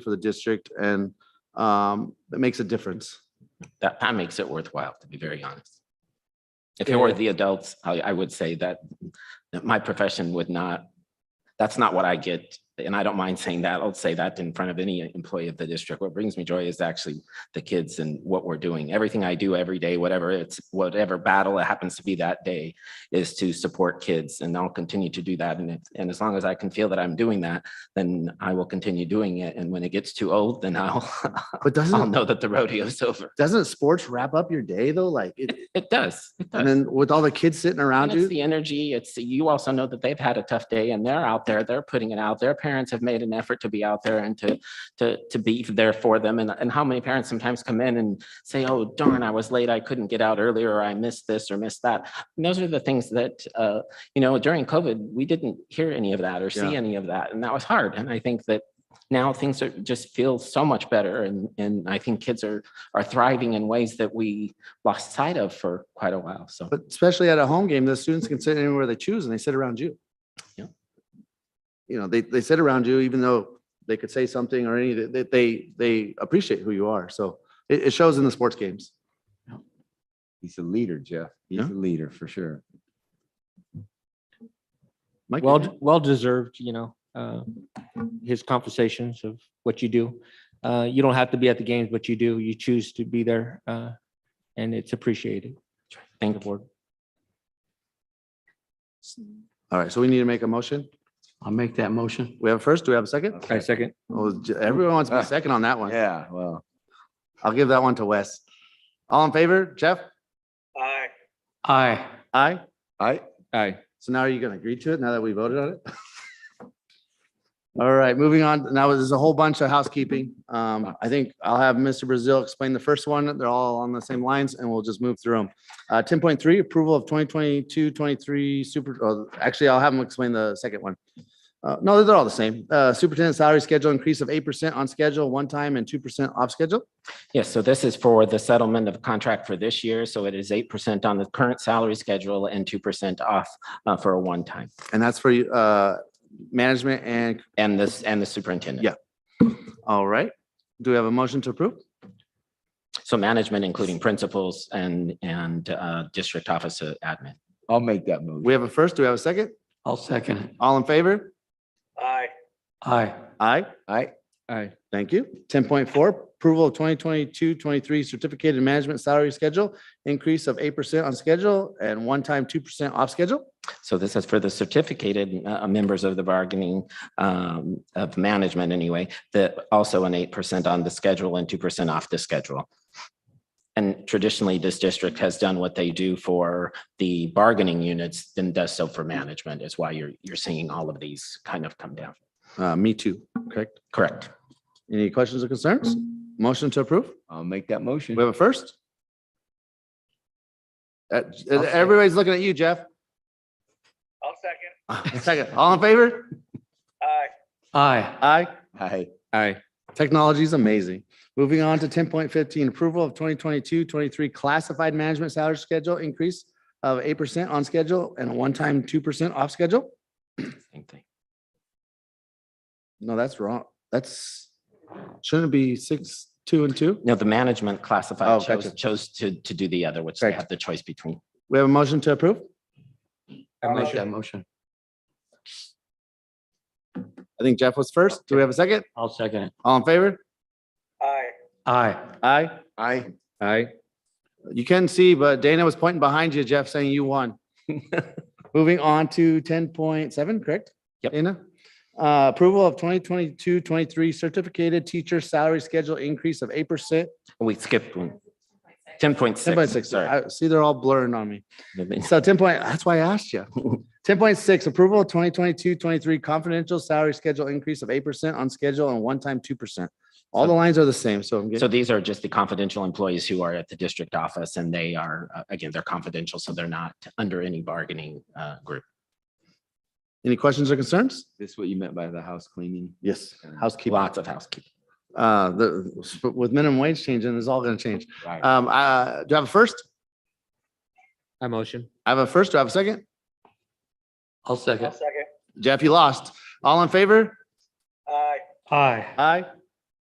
for the district and um, that makes a difference. that, that makes it worthwhile, to be very honest. If it were the adults, I, I would say that, that my profession would not, that's not what I get. And I don't mind saying that. I'll say that in front of any employee of the district. What brings me joy is actually the kids and what we're doing. Everything I do every day, whatever it's, whatever battle it happens to be that day is to support kids and I'll continue to do that. And, if- and as long as I can feel that I'm doing that, then I will continue doing it. And when it gets too old, then I'll, But I'll doesn't, know that the rodeo's over. doesn't sports wrap up your day though? Like, it- It does. It and does. then with all the kids sitting And around it's you, the energy. It's you also know that they've had a tough day and they're out there. They're putting it out. Their parents have made an effort to be out there and to to to be there for them. And and how many parents sometimes come in and say, "Oh darn, I was late. I couldn't get out earlier. Or I missed this or missed that." And those are the things that uh, you know during COVID we didn't hear any of that or see Yeah. any of that, and that was hard. And I think that now things are just feel so much better, and and I think kids are are thriving in ways that we lost sight of for quite a while. So. but especially at a home game, the students can sit anywhere they choose and they sit around you. Yeah. You know, they, they sit around you even though they could say something or any, that they, they appreciate who you are. So it, it shows in the sports games. He's a leader, Jeff. He's Yeah. a leader for sure. Mike, Well, d- well deserved, you know, uh, his conversations of what you do. Uh, you don't have to be at the games, but you do, you choose to be there, uh, and it's appreciated. Thank you. all right. So we need to make a motion. I'll make that motion. We have a first, do we have a second? I second. Oh, j- Everyone wants to be Ah. second on that one. Uh, Yeah, well, I'll give that one to Wes. All in favor, Jeff? Aye. Aye. I, Aye. So now are you going to agree to it now that we voted on it? All right, moving on. Now there's a whole bunch of housekeeping. Um, I think I'll have Mr. Brazil explain the first one. They're all on the same lines and we'll just move through them. Uh, ten point three, approval of 2022-23 super, oh, actually, I'll have them explain the second one. Uh, no, they're all the same. Uh, superintendent salary schedule increase of eight percent on schedule, one time and two percent off schedule. Yes, so this is for the settlement of contract for this year. So it is eight percent on the current salary schedule and two percent off uh, for a one time. And that's for, uh, management and, And this, and the superintendent. Yeah. all right. Do we have a motion to approve? So management, including principals and, and uh, district office uh, admin. I'll make that move. We have a first. Do we have a second? I'll second it. All in favor? Aye. Aye. I, Aye. Thank you. Ten point four, approval of 2022-23 certificated management salary schedule, increase of eight percent on schedule and one-time two percent off schedule. So this is for the certificated uh, members of the bargaining um, of management anyway, that also an eight percent on the schedule and two percent off the schedule. And traditionally, this district has done what they do for the bargaining units, then does so for management is why you're, you're seeing all of these kind of come down. Uh, me too. Correct. Correct. Any questions or concerns? Motion to approve? I'll make that motion. We have a first? Uh, I'll second. everybody's looking at you, Jeff. I'll second. Second. All in favor? Aye. Aye. I, Aye. Technology is amazing. Moving on to ten point fifteen, approval of 2022-23 classified management salary schedule increase of eight percent on schedule and a one-time two percent off schedule. Same thing. No, that's wrong. That's, shouldn't it be six, two and two? No, the management Oh, classified chose, gotcha. chose to, to do the other, which they Correct. have the choice between. We have a motion to approve? I'll make that motion. I think Jeff was first. Do we have a second? I'll second it. All in favor? Aye. Aye. I, Aye. You can see, but Dana was pointing behind you, Jeff, saying you won. Moving on to ten point seven, correct? Yep. Dana? Uh, approval of 2022-23 certificated teacher salary schedule increase of eight percent. We skipped one. Ten point Ten point six, six, sorry. I see they're all blurring on me. So ten point, that's why I asked you. Ten point six, approval of 2022-23 confidential salary schedule increase of eight percent on schedule and one-time two percent. All the lines are the same, so I'm So getting, these are just the confidential employees who are at the district office and they are, uh, again, they're confidential, so they're not under any bargaining uh, group. any questions or concerns? this what you meant by the house cleaning? Yes. Housekeeping. Lots of housekeeping. Uh, the, with minimum wage changing, it's all gonna change. Right. Um, uh, do I have a first? I motion. I have a first. Do I have a second? I'll second. Jeff, you lost. All in favor? Aye. Aye.